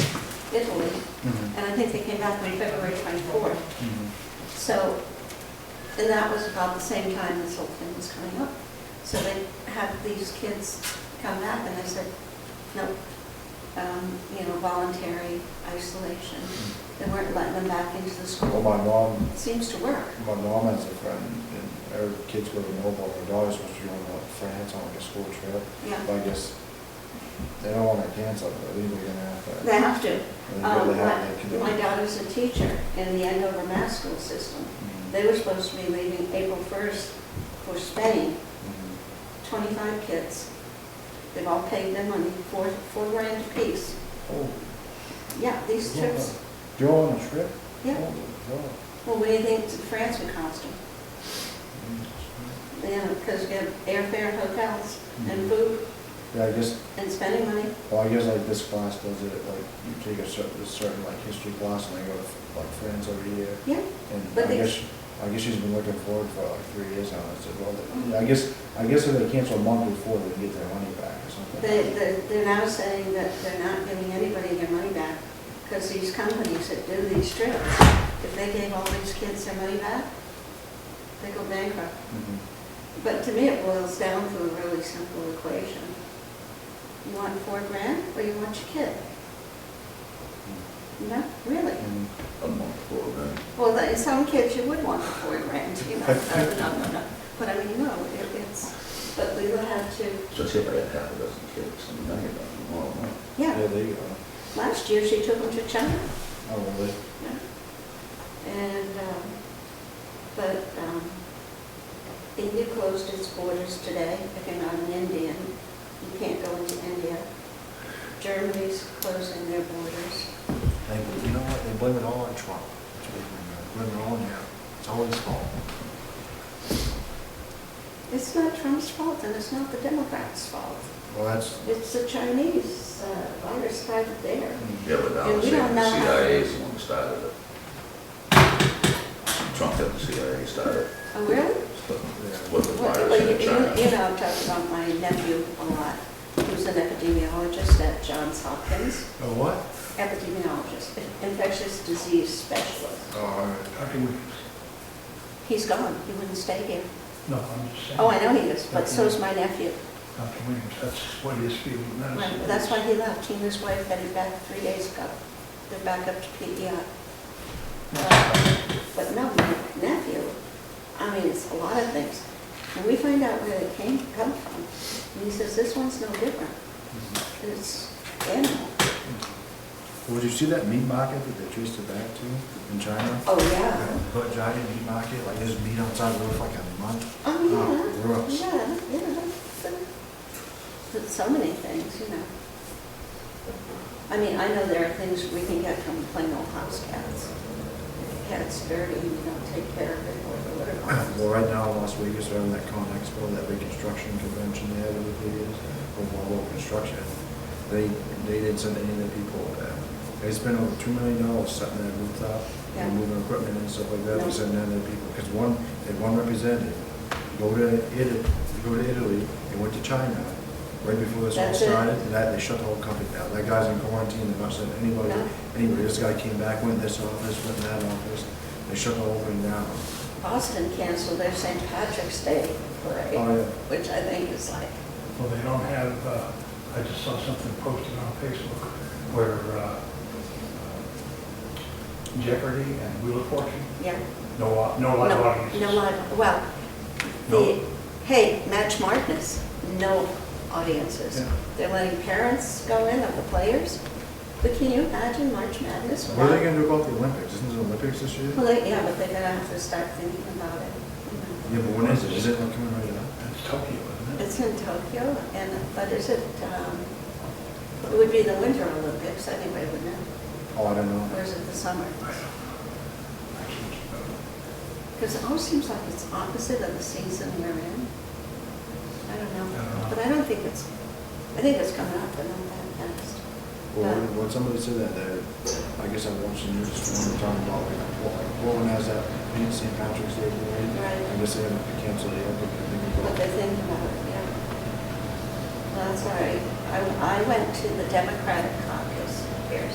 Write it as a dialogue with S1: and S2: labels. S1: Italy,
S2: Mhm,
S1: and I think they came back on February 24th.
S2: mhm.
S1: So, and that was about the same time this whole thing was coming up. So they had these kids come back and they said, no, um, you know, voluntary isolation. They weren't letting them back into the
S2: Well,
S1: school.
S2: my mom,
S1: It seems to work.
S2: my mom has a friend, and her kids go to Noble, her daughter's supposed to be going to France on like a school trip.
S1: Yeah,
S2: But I guess they don't want to cancel it, but I think they're gonna have to.
S1: they have to.
S2: they
S1: Um,
S2: really have to
S1: my-
S2: commit.
S1: My daughter's a teacher in the Andover Mass School System.
S2: Mhm,
S1: They were supposed to be leaving April 1st for Spain.
S2: mhm.
S1: 25 kids. They've all paid their money, four, four grand apiece.
S2: Oh,
S1: Yeah, these
S2: yeah.
S1: trips,
S2: You're on a trip? Oh,
S1: yeah.
S2: Holy cow.
S1: Well, what do you think France would cost them?
S2: Mhm.
S1: You know, because you have airfare, hotels, and
S2: Mhm.
S1: food,
S2: Yeah, I guess,
S1: and spending money.
S2: well, I guess like this class does it, like you take a certain, a certain like history class and they go to like France every year.
S1: Yeah,
S2: And
S1: But
S2: I
S1: they-
S2: guess, I guess she's been looking forward for like three years now, I said, well,
S1: Mm-hmm.
S2: yeah, I guess, I guess if they cancel a month before, they get their money back or something.
S1: they, they- they're now saying that they're not giving anybody their money back, because these companies that do these trips, if they gave all these kids their money back, they go bankrupt.
S2: Mhm.
S1: But to me, it boils down to a really simple equation. You want four grand, or you want your kid? No, really?
S2: Mhm.
S3: a month for that.
S1: Well, that- some kids you would want the four grand, you know, no, no, no, no. But I mean, no, it- it's, but we would have to,
S3: So say if I had half a dozen kids, I mean, I get about them all, huh?
S1: yeah.
S2: Yeah, there you go.
S1: Last year, she took them to China.
S2: Oh, really?
S1: yeah. And, um, but um, India closed its borders today. If you're not an Indian, you can't go into India. Germany's closing their borders.
S2: They, you know what, they blame it all on Trump. That's what they Blame it all on him. It's all his fault.
S1: It's not Trump's fault, and it's not the Democrats' fault.
S2: Well, that's,
S1: It's the Chinese uh, virus started there.
S2: mm.
S3: Yeah, but now
S1: And
S3: I'm
S1: we don't
S3: saying the
S1: know how-
S3: CIA is the one that started it. Trump had the CIA started,
S1: Oh, really?
S3: so,
S2: Yeah.
S3: what the
S1: Well,
S3: virus
S1: you-
S3: in China.
S1: You you know, I've talked about my nephew a lot, who's an epidemiologist at Johns Hopkins,
S2: oh, what?
S1: epidemiologist, infectious disease specialist.
S2: Oh, all right.
S4: Dr. Williams.
S1: He's gone, he wouldn't stay here.
S4: No, I'm just saying.
S1: Oh, I know he is, but so is my nephew.
S4: Dr. Williams, that's what his field of medicine
S1: My-
S4: is.
S1: That's why he left, he and his wife headed back three days ago. They're back up to PEI. Uh, But no, my nephew, I mean, it's a lot of things. And we find out where they came, come from, and he says, this one's no different.
S2: Mhm.
S1: It's animal.
S2: Well, did you see that meat market that they traced it back to in China?
S1: Oh, yeah.
S2: But giant meat market, like there's meat outside the roof like a month.
S1: Oh,
S2: Oh,
S1: yeah.
S2: gross.
S1: Yeah, yeah. But so many things, you know. I mean, I know there are things we can get from plain old house cats. If the Cat's dirty, you don't take care of it or
S2: Well,
S1: whatever.
S2: right now, in Las Vegas, they're having that Con Expo, that reconstruction convention they had over the years, for mobile construction. They, they didn't send any of the people, uh, they spent over two million dollars setting that rooftop,
S1: Yeah.
S2: and moving equipment and stuff like that,
S1: Yeah.
S2: they sent none of their people, because one, they had one representative, go to Italy, go to Italy, they went to China, right before this all
S1: That's it.
S2: started, and that, they shut the whole company down. That guy's in quarantine, they're not sending anybody,
S1: No.
S2: anybody, this guy came back, went this office, went that office, they shut the whole thing down.
S1: Boston canceled their St. Patrick's Day parade,
S2: Oh, yeah.
S1: which I think is like,
S4: Well, they don't have, uh, I just saw something posted on Facebook where uh, Jeopardy and Wheel of Fortune,
S1: yeah.
S4: no, au- no live
S1: No-
S4: audiences.
S1: No live, well, the,
S4: No.
S1: hey, Match Madness, no audiences.
S4: Yeah.
S1: They're letting parents go in of the players, but can you imagine March Madness?
S2: What are they
S1: without-
S2: gonna do about the Olympics? Isn't it Olympics this year?
S1: Well, they- yeah, but they're gonna have to start thinking about it.
S2: Yeah, but when is it? Is it like coming right up?
S4: That's Tokyo, isn't it?
S1: It's in Tokyo, and, but is it, um, it would be the Winter Olympics, anyway, wouldn't it?
S2: Oh, I don't know.
S1: Or is it the summer?
S4: I don't know. I can't keep up.
S1: Because it always seems like it's opposite of the season we're in. I don't
S4: I don't
S1: know,
S4: know.
S1: but I don't think it's, I think it's coming up, but not that fast.
S2: Well, when- when somebody said that, uh, I guess I watched the news this morning talking about like, well, like, Portland has that being St. Patrick's Day parade.
S1: Right.
S2: I guess they have to cancel the Olympic. I think
S1: what they
S2: about.
S1: think about it, yeah. Well, That's all right. I, I went to the Democratic caucus